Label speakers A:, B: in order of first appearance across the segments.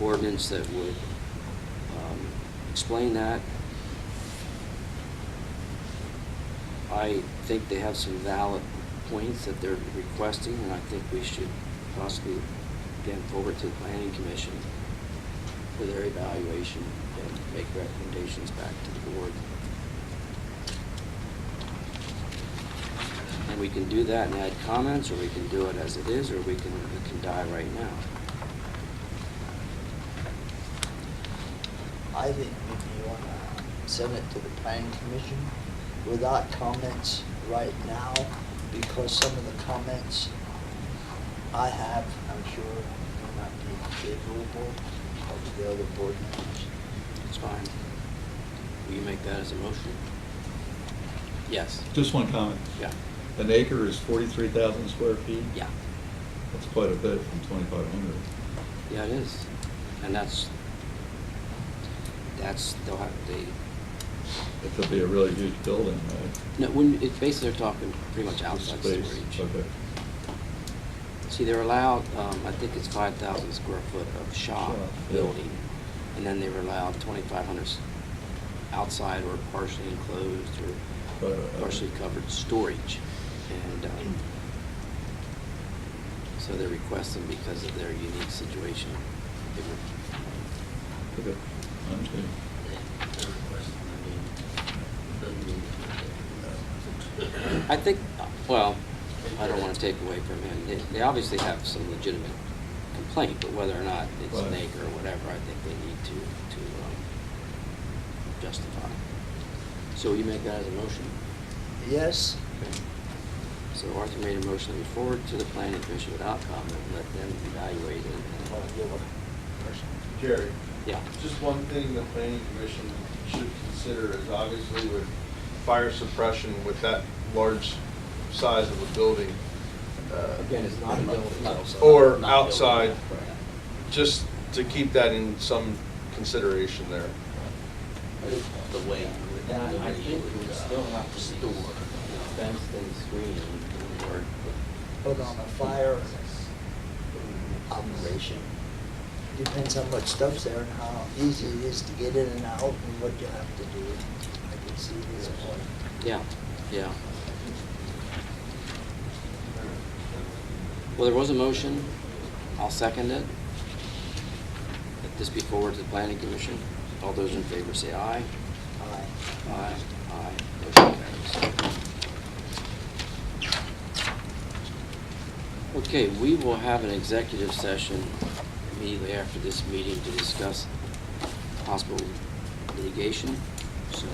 A: ordinance that would um, explain that. I think they have some valid points that they're requesting, and I think we should possibly get forward to the planning commission for their evaluation and make recommendations back to the board. And we can do that and add comments, or we can do it as it is, or we can, it can die right now.
B: I think maybe you want to send it to the planning commission without comments right now, because some of the comments I have, I'm sure, may not be favorable of the other board members.
A: It's fine. Will you make that as a motion? Yes.
C: Just one comment.
A: Yeah,
C: An acre is forty-three thousand square feet?
A: yeah,
C: That's quite a bit from twenty-five hundred.
A: yeah, it is. And that's, that's, they'll have, they,
C: It could be a really huge building, right?
A: no, when, it's basically they're talking pretty much
C: The
A: outside
C: space,
A: storage.
C: Okay.
A: See, they're allowed, um, I think it's five thousand square foot of shop
C: Shop, yeah.
A: building, and then they were allowed twenty-five hundred outside or partially enclosed
C: Right,
A: or
C: right, right.
A: partially covered storage. And, um, so they're requesting because of their unique situation. They were-
C: Okay. Understood.
A: I think, well, I don't want to take away from him. They, they obviously have some legitimate complaint, but whether or not it's an
C: Right.
A: acre or whatever, I think they need to, to um, justify. So you make that as a motion?
B: Yes,
A: Okay. So Arthur made a motion to forward to the planning commission without comment, let them evaluate
B: I'm
A: it.
B: gonna give a person.
D: Jerry,
A: Yeah,
D: just one thing the planning commission should consider is obviously with fire suppression, with that large size of a building. uh,
A: again, it's not a building.
D: Or outside, just to keep that in some consideration there.
E: the way.
A: And I I think we still have to store fenced and screened or.
B: But on a fire operation, depends how much stuff's there and how easy it is to get in and out and what you have to do. I can see this point.
A: Yeah, yeah. Well, there was a motion. I'll second it. Let this be forwarded to the planning commission. All those in favor say aye.
B: Aye.
A: Aye. Aye. Motion carries. Okay, we will have an executive session immediately after this meeting to discuss possible litigation. So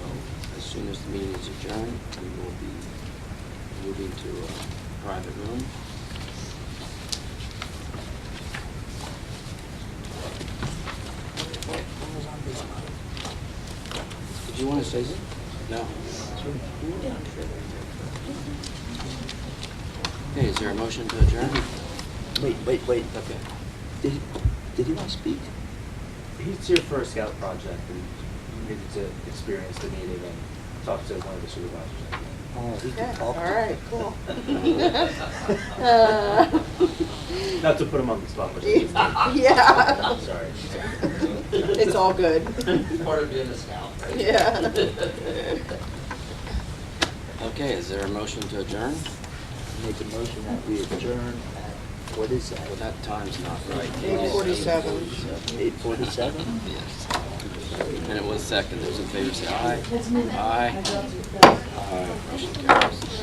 A: as soon as the meeting is adjourned, we will be moving to a private room. Did you want to say something? No. Okay, is there a motion to adjourn?
B: Wait, wait, wait.
A: Okay.
B: Did, did he want to speak?
F: He's here for a scout project and needed to experience the meeting and talk to one of the supervisors. I think.
B: Oh, he
G: Okay,
B: can
G: all
B: talk.
G: right, cool. Uh,
F: Not to put him on the spot, but he's
G: Yeah.
F: sorry.
G: It's all good.
E: Part of being a scout, right?
G: Yeah.
A: Okay, is there a motion to adjourn?
B: Make a motion that we adjourn at, what is
A: Well,
B: that?
A: that time's not right.
G: Eight forty-seven.
B: Eight forty-seven?
A: Yes. And it was second. Those in favor say aye. Aye. Aye. Motion carries.